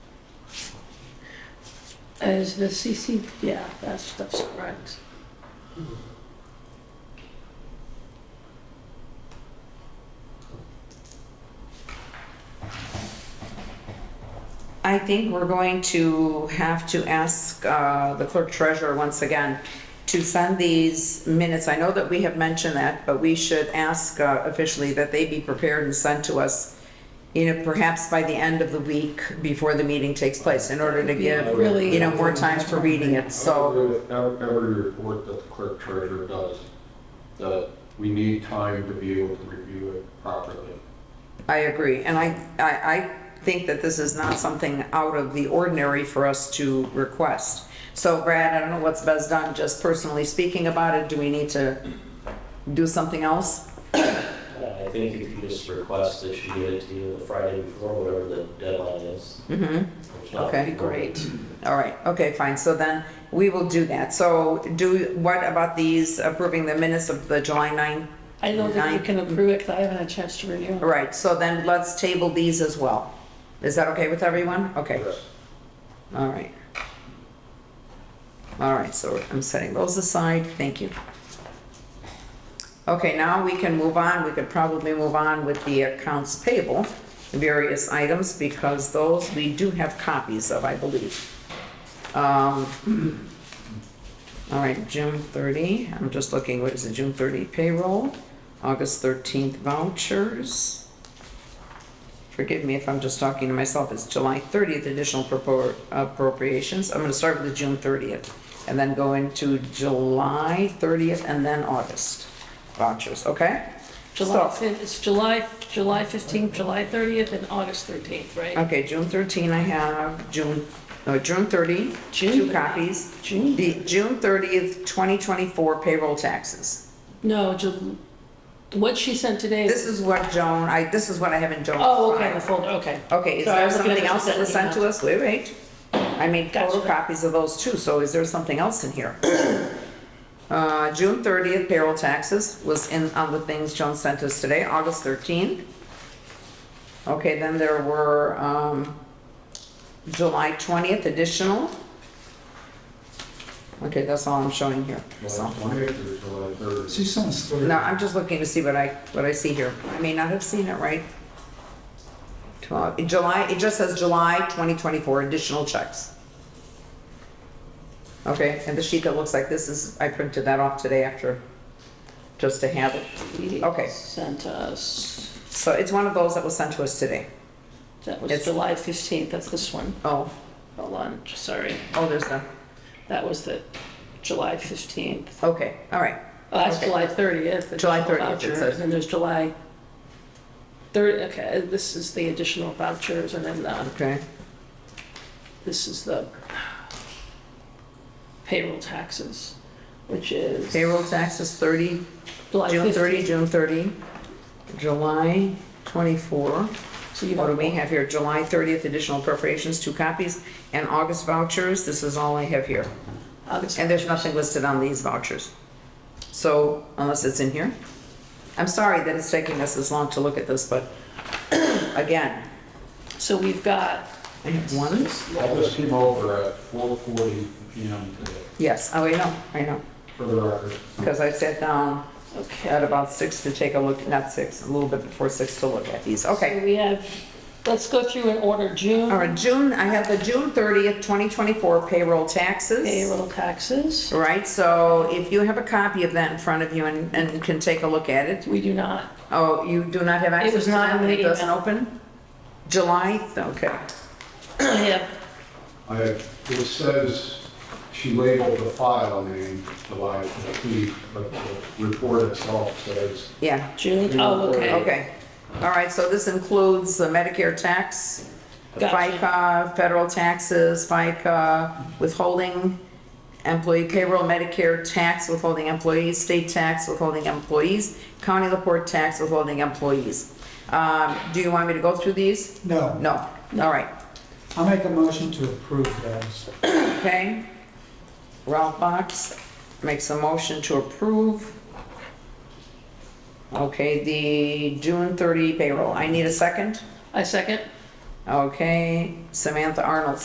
Is the CC, yeah, that stuff's correct. I think we're going to have to ask uh, the clerk treasurer once again to send these minutes. I know that we have mentioned that, but we should ask uh, officially that they be prepared and sent to us, you know, perhaps by the end of the week before the meeting takes place, in order to give, Really- you know, more time for reading it, I so. would agree with ev- Every report that the clerk treasurer does, that we need time to be able to review it properly. I agree, and I, I, I think that this is not something out of the ordinary for us to request. So Brad, I don't know what's best done, just personally speaking about it, do we need to do something else? I think if you just request that she get it to you the Friday before, whatever the deadline is. Mm-hmm, which not- Okay, great. all right, okay, fine, so then we will do that. So do, what about these approving the minutes of the July 9? I don't think you Nine. can approve it because I haven't had a chance to review All it. right, so then let's table these as well. Is that okay with everyone? Okay. Yes. All right. All right, so I'm setting those aside, thank you. Okay, now we can move on, we could probably move on with the accounts payable, various items, because those we do have copies of, I believe. Um, All right, June 30, I'm just looking, what is it, June 30 payroll, August 13th vouchers, forgive me if I'm just talking to myself, it's July 30th additional propor- appropriations. I'm going to start with the June 30th and then go into July 30th and then August vouchers, okay? July So- fif- It's July, July 15th, July 30th, and August 13th, right? Okay, June 13 I have, June, no, June 30, two June. copies. June. The June 30th, 2024 payroll taxes. No, Ju- what she sent today. This is what Joan, I, this is what I have in Joan's Oh, okay, file. the folder, okay. Okay, is Sorry, I there was looking at something what else she that was sent sent me to us? Wait, wait. I made Gotcha. photocopies of those too, so is there something else in here? Uh, June thirtieth payroll taxes was in, on the things Joan sent us today, August thirteenth. Okay, then there were, um, July twentieth additional. Okay, that's all I'm showing here, so. July 20th or July 30th. She sounds sort No, I'm just looking to see what I, what I see here. I may not have seen it right. Twelve, in July, it just says July 2024, additional checks. Okay, and the sheet that looks like this is, I printed that off today after, just to have it. He Okay. Sent us, So it's one of those that was sent to us today. that was It's- July 15th, that's this one. Oh, Hold on, sorry. oh, there's the, That was the July 15th. okay, all right. Oh, that's Okay. July 30th. July additional 30th, it vouchers, says. And there's July 30, okay, this is the additional vouchers, and then uh, Okay, this is the payroll taxes, which is payroll taxes 30, July June 30, 15th. June 30, July 24. So you What do we have, have here? July 30th additional appropriations, two copies, and August vouchers. This is all I have here. August. And there's nothing listed on these vouchers. So unless it's in here. I'm sorry that it's taking us this long to look at this, but again, So we've got, I have one. I just came over at 4:40 PM today, Yes, oh, I know, I know. for the record. Because I sat down at okay. about six to take a look, not six, a little bit before six to look at these. Okay. So we have, let's go through in order, All June right, June, I have the June 30th, 2024 payroll taxes. payroll taxes. Right, so if you have a copy of that in front of you and, and can take a look at it, We do not, oh, you do not have access was to not that, in the it doesn't email. open? July, th- okay, I have, I, it says she labeled the file name July 15th, but the report itself says yeah, June, oh, okay. okay. All right, so this includes the Medicare tax, Gotcha. FICA, federal taxes, FICA, withholding employee payroll, Medicare tax, withholding employees, state tax, withholding employees, county Laporte tax, withholding employees. Um, do you want me to go through these? No, No, all right. I'll make a motion to approve those. Okay. Ralph Box makes a motion to approve. Okay, the June 30 payroll. I need a second. I second. Okay, Samantha Arnold